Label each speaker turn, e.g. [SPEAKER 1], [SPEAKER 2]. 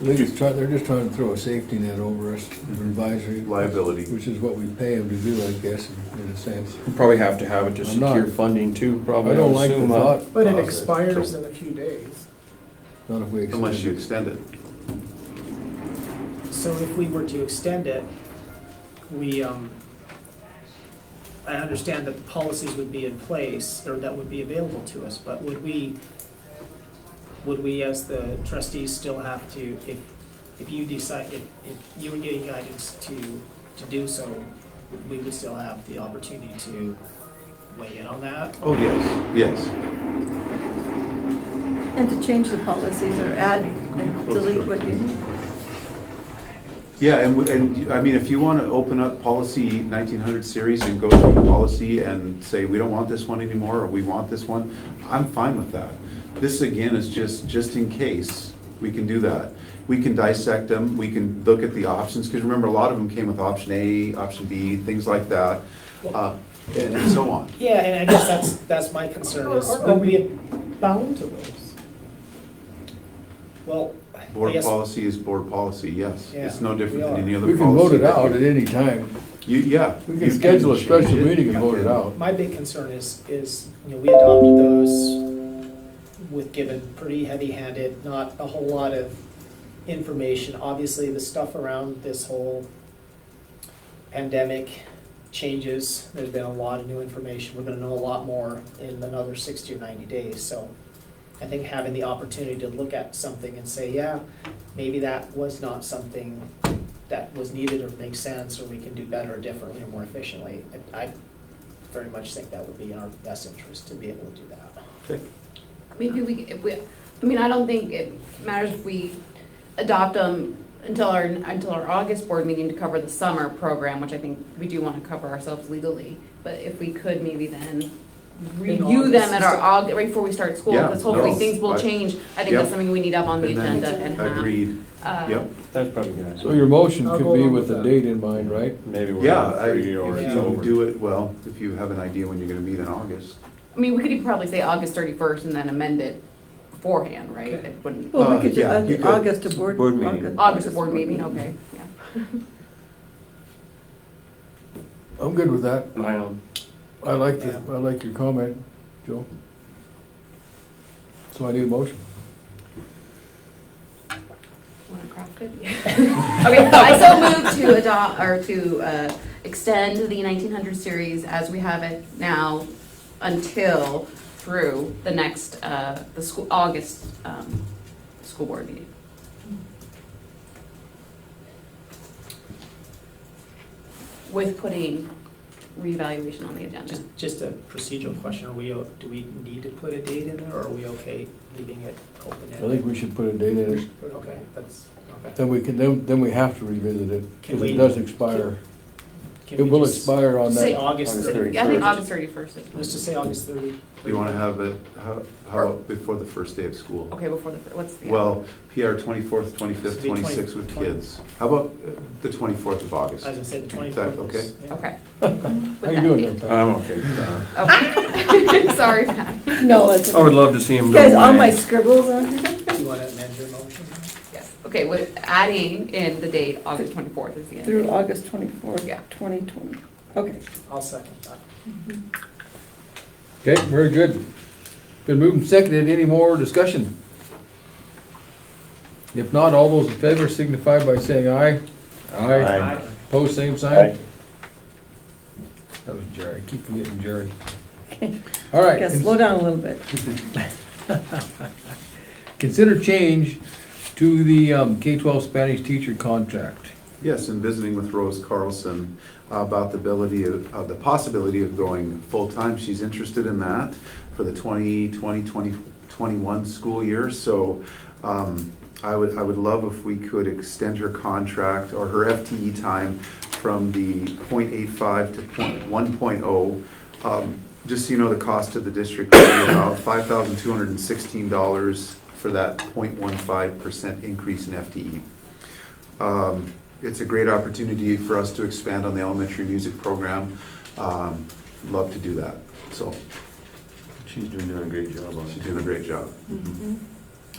[SPEAKER 1] They're just trying, they're just trying to throw a safety net over us, an advisory.
[SPEAKER 2] Liability.
[SPEAKER 1] Which is what we pay them to do, I guess, in- in a sense.
[SPEAKER 3] We'll Probably have to have it to
[SPEAKER 1] I'm not-
[SPEAKER 3] secure funding too, probably.
[SPEAKER 1] I don't like the
[SPEAKER 3] assume, uh,
[SPEAKER 1] thought,
[SPEAKER 4] But it
[SPEAKER 3] Uh,
[SPEAKER 4] expires in a few days.
[SPEAKER 1] not if we extend
[SPEAKER 2] Unless you
[SPEAKER 1] it.
[SPEAKER 2] extend it.
[SPEAKER 4] So if we were to extend it, we, um, I understand that the policies would be in place, or that would be available to us, but would we, would we as the trustees still have to, if, if you decide, if, if you were getting guidance to, to do so, we would still have the opportunity to weigh in on that?
[SPEAKER 2] Oh, yes. Yes.
[SPEAKER 5] And to change the policies or add and delete what you,
[SPEAKER 2] Yeah, and, w- and, I mean, if you want to open up policy nineteen hundred series and go through the policy and say, we don't want this one anymore, or we want this one, I'm fine with that. This again is just, just in case, we can do that. We can dissect them, we can look at the options, because remember, a lot of them came with option A, option B, things like that, uh, and and so on.
[SPEAKER 4] Yeah, and I guess that's, that's my concern is.
[SPEAKER 6] Are- are we
[SPEAKER 4] bound to those? Well, I
[SPEAKER 2] Board
[SPEAKER 4] guess,
[SPEAKER 2] policy is board policy, yes. It's no
[SPEAKER 4] Yeah,
[SPEAKER 2] different
[SPEAKER 4] we
[SPEAKER 2] than
[SPEAKER 4] are.
[SPEAKER 2] any other
[SPEAKER 1] We
[SPEAKER 2] policy.
[SPEAKER 1] can vote it
[SPEAKER 2] that
[SPEAKER 1] out
[SPEAKER 2] you-
[SPEAKER 1] at any time.
[SPEAKER 2] You, yeah.
[SPEAKER 1] We
[SPEAKER 2] you
[SPEAKER 1] can schedule a
[SPEAKER 2] change
[SPEAKER 1] special meeting and vote it out.
[SPEAKER 4] my big concern is, is, you know, we adopted those with given pretty heavy-handed, not a whole lot of information. Obviously, the stuff around this whole pandemic changes, there's been a lot of new information. We're gonna know a lot more in another sixty or ninety days, so I think having the opportunity to look at something and say, yeah, maybe that was not something that was needed or makes sense, or we can do better or differently or more efficiently. I I very much think that would be in our best interest to be able to do that.
[SPEAKER 6] Maybe we, if we, I mean, I don't think it matters if we adopt them until our, until our August board meeting to cover the summer program, which I think we do want to cover ourselves legally. But if we could maybe then review them at our Aug, right before we start school,
[SPEAKER 2] Yeah,
[SPEAKER 6] because hopefully
[SPEAKER 2] no,
[SPEAKER 6] things will
[SPEAKER 2] I-
[SPEAKER 6] change. I think
[SPEAKER 2] Yep.
[SPEAKER 6] that's something we need up on the
[SPEAKER 2] And then-
[SPEAKER 6] agenda and have.
[SPEAKER 2] Agreed,
[SPEAKER 4] Uh-huh.
[SPEAKER 6] uh,
[SPEAKER 2] yep.
[SPEAKER 3] That's probably good.
[SPEAKER 1] So your motion
[SPEAKER 4] I'll
[SPEAKER 1] could
[SPEAKER 4] go
[SPEAKER 1] be
[SPEAKER 4] along
[SPEAKER 1] with
[SPEAKER 4] with
[SPEAKER 1] a
[SPEAKER 4] that.
[SPEAKER 1] date in mind, right?
[SPEAKER 3] Maybe we're
[SPEAKER 2] Yeah,
[SPEAKER 3] not
[SPEAKER 2] I-
[SPEAKER 3] free or
[SPEAKER 2] if
[SPEAKER 3] it's
[SPEAKER 4] yeah.
[SPEAKER 2] you
[SPEAKER 3] over.
[SPEAKER 2] do it, well, if you have an idea when you're gonna meet in August.
[SPEAKER 6] I mean, we could even probably say August thirty-first and then amend it beforehand, right?
[SPEAKER 4] Okay.
[SPEAKER 6] It wouldn't,
[SPEAKER 5] well,
[SPEAKER 2] Uh,
[SPEAKER 5] we could do
[SPEAKER 2] yeah, you
[SPEAKER 5] Aug-
[SPEAKER 2] could.
[SPEAKER 5] August to board.
[SPEAKER 3] Board meeting.
[SPEAKER 6] August board meeting, okay, yeah.
[SPEAKER 1] I'm good with that.
[SPEAKER 3] I don't-
[SPEAKER 1] I like the, I like your comment, Joe. So I need a motion.
[SPEAKER 6] Want to craft it?
[SPEAKER 7] Okay, I so move to adopt, or to uh, extend the 1900 series as we have it now until through the next, uh, the school, August um, school board meeting. With putting reevaluation on the agenda.
[SPEAKER 4] Just, just a procedural question, are we, o- do we need to put a date in there, or are we okay leaving it
[SPEAKER 1] I
[SPEAKER 4] open-ended?
[SPEAKER 1] think we should put a date in it.
[SPEAKER 4] Okay, that's, okay.
[SPEAKER 1] Then we can, then, then we have to revisit it,
[SPEAKER 4] Can
[SPEAKER 1] because
[SPEAKER 4] we-
[SPEAKER 1] it does expire.
[SPEAKER 4] Can
[SPEAKER 1] It
[SPEAKER 4] we
[SPEAKER 1] will
[SPEAKER 4] just
[SPEAKER 1] expire on
[SPEAKER 6] say
[SPEAKER 1] that.
[SPEAKER 4] August
[SPEAKER 3] August
[SPEAKER 4] thirty,
[SPEAKER 3] thirty.
[SPEAKER 6] Yeah, I think August thirty-first is.
[SPEAKER 4] let's just say August thirty.
[SPEAKER 2] You wanna have it, how, how, about before the first day of school?
[SPEAKER 6] Okay, before the, fir- what's the?
[SPEAKER 2] Well, PR twenty-fourth, twenty-fifth,
[SPEAKER 4] Be twenty-
[SPEAKER 2] twenty-sixth with
[SPEAKER 4] twenty.
[SPEAKER 2] kids. How about uh, the twenty-fourth of August?
[SPEAKER 4] As I said, the
[SPEAKER 2] Is
[SPEAKER 4] twenty-fourth.
[SPEAKER 2] that okay?
[SPEAKER 6] Okay.
[SPEAKER 1] How you doing there, Pat?
[SPEAKER 3] I'm okay. with that.
[SPEAKER 6] Okay. Sorry, Pat.
[SPEAKER 5] No, it's,
[SPEAKER 3] I would love to see him.
[SPEAKER 5] guys,
[SPEAKER 3] go
[SPEAKER 5] all
[SPEAKER 3] away.
[SPEAKER 5] my scribbles on here.
[SPEAKER 4] You want to amend your motion?
[SPEAKER 6] Yes, okay, with adding in the date, August twenty-fourth is the end.
[SPEAKER 5] Through August twenty-fourth,
[SPEAKER 6] Yeah.
[SPEAKER 5] twenty twenty. Okay.
[SPEAKER 4] I'll second that.
[SPEAKER 1] Okay, very good. Been moved and seconded. Any more discussion? If not, all those in favor signify by saying aye.
[SPEAKER 3] Aye.
[SPEAKER 1] Pose same sign? That was Jerry, I keep forgetting Jerry. All right,
[SPEAKER 5] Yeah,
[SPEAKER 1] cons-
[SPEAKER 5] slow down a little bit.
[SPEAKER 1] consider change to the um, K-12 Spanish teacher contract.
[SPEAKER 2] Yes, and visiting with Rose Carlson about the ability of, of the possibility of going full-time. She's interested in that for the 2020, 2021 school year. So um, I would, I would love if we could extend her contract or her FTE time from the .85 to point- 1.0. Um, Just so you know, the cost to the district would be about $5,216 for that 0.15% increase in E. FTE. Um, It's a great opportunity for us to expand on the elementary music program. Um, Love to do that. So
[SPEAKER 3] She's doing a great job on
[SPEAKER 2] she's
[SPEAKER 3] it.
[SPEAKER 2] doing a great job.